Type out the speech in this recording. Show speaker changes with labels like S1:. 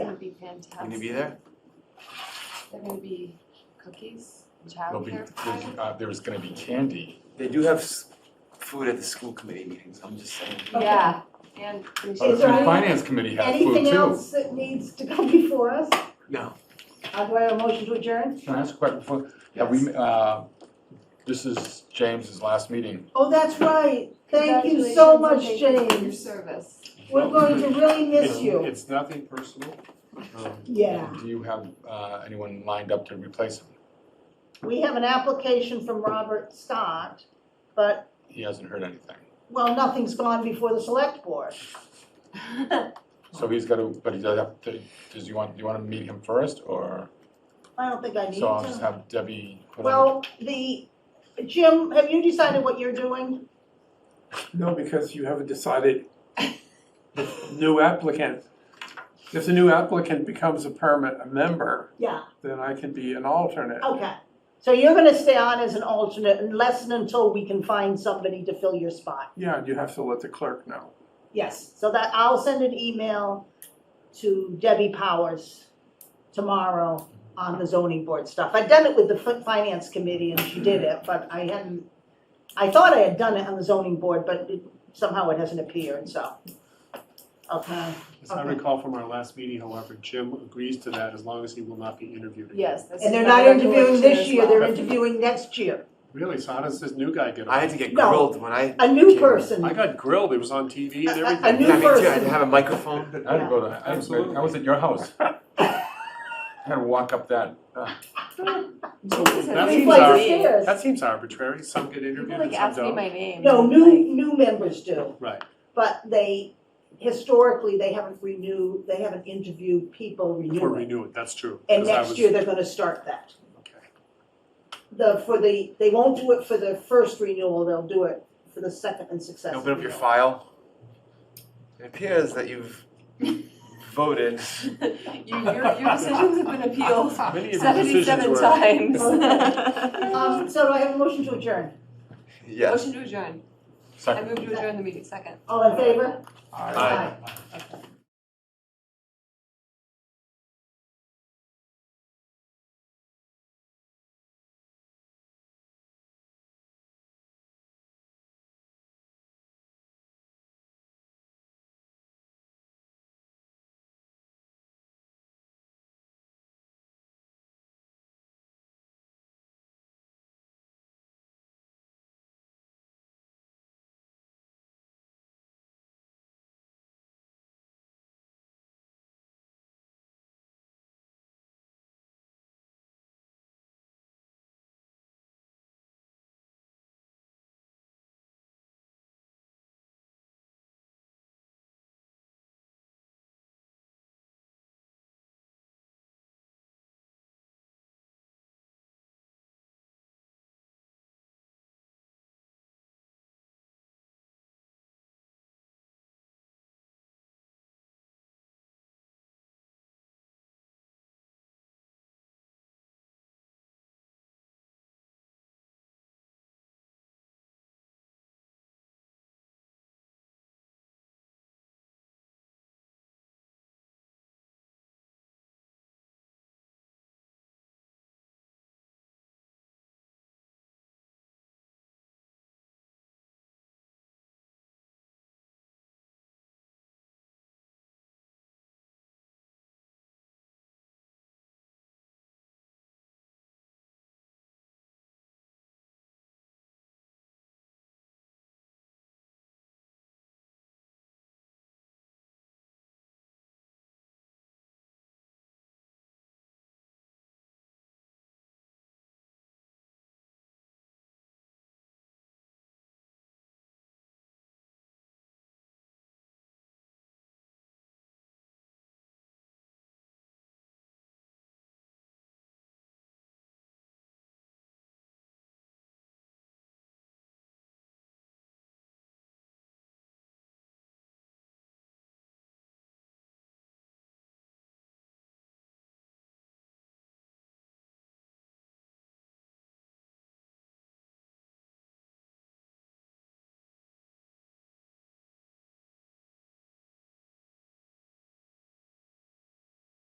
S1: fantastic.
S2: Gonna be there?
S1: There may be cookies,
S3: There'll be,
S1: childcare
S3: there's,
S1: provided.
S3: uh, there's gonna be candy.
S2: They do have s- food at the school committee meetings, I'm just saying.
S1: Yeah, and. and
S3: Uh,
S1: she's
S3: the
S4: there any-
S3: finance committee has food
S4: Anything
S3: too.
S4: else that needs to come before us?
S2: No.
S4: I'll go a motion to adjourn.
S3: Can I ask a question before, have we, uh, this is James's last meeting.
S4: Oh, that's right. Thank you so much,
S1: Congratulations and thank you for Your
S4: James.
S1: service.
S4: We're going to really miss
S3: It's-
S4: you.
S3: It's nothing personal. Um,
S4: Yeah.
S3: Do you have, uh, anyone lined up to replace him?
S4: We have an application from Robert Stott, but,
S3: He hasn't heard anything.
S4: well, nothing's gone before the select board.
S3: So he's gotta, but he does have to, does you want, do you wanna meet him first or?
S4: I don't think I need
S3: So I'll just
S4: to.
S3: have Debbie put on.
S4: Well, the, Jim, have you decided what you're doing?
S5: No, because you haven't decided the new applicant. If the new applicant becomes a permanent a member,
S4: Yeah,
S5: then I can be an alternate.
S4: okay. So you're gonna stay on as an alternate unless and until we can find somebody to fill your spot.
S5: Yeah, and you have to let the clerk know.
S4: Yes, so that, I'll send an email to Debbie Powers tomorrow on the zoning board stuff. I'd done it with the fin- finance committee and she did it, but I hadn't, I thought I had done it on the zoning board, but it- somehow it hasn't appeared, so. Okay,
S6: As I
S4: Okay.
S6: recall from our last meeting, however, Jim agrees to that as long as he will not be interviewed. again.
S1: Yes, this is.
S4: and they're
S1: my
S4: not interviewing
S1: recollection
S4: this
S1: as
S4: year, they're
S1: well.
S4: interviewing next year.
S6: Really, so how does this new guy get
S2: I had
S6: on?
S2: to get
S4: No.
S2: grilled when I,
S4: A new person,
S6: I got grilled, it was on TV and
S4: A- a- a
S6: everything.
S2: I mean,
S4: New
S2: too, I had
S4: person.
S2: to have a microphone.
S3: I had to go to, I had to go-
S6: Absolutely.
S3: I was at your house. I had to walk up that, uh,
S1: That
S6: So that
S4: we
S1: seems
S6: seems
S4: play
S1: like
S6: ar-
S4: the
S1: our-
S4: stairs.
S6: that seems arbitrary, some get
S1: People
S6: interviewed
S1: like
S6: and some
S1: ask me
S6: don't.
S1: my name.
S4: No,
S1: I'm
S4: new,
S1: like-
S4: new members do.
S6: Right.
S4: But they, historically, they haven't renewed, they haven't interviewed people
S6: Or
S4: renewing.
S6: renew it, that's true.
S4: And
S6: 'cause I
S4: next
S6: was-
S4: year, they're gonna start that.
S6: Okay.
S4: The, for the, they won't do it for the first renewal, they'll do it for the second and successive.
S2: Open up your
S4: renewal.
S2: file. It appears that you've voted.
S1: Your, your, your decisions have been appealed
S6: Many of your
S1: seventy-seven
S6: decisions were.
S1: times.
S4: Um, so do I have a motion to adjourn?
S2: Yes.
S1: Motion to adjourn. I
S3: second.
S1: move to adjourn the meeting, second.
S4: All in favor?
S2: Aye.
S4: Okay.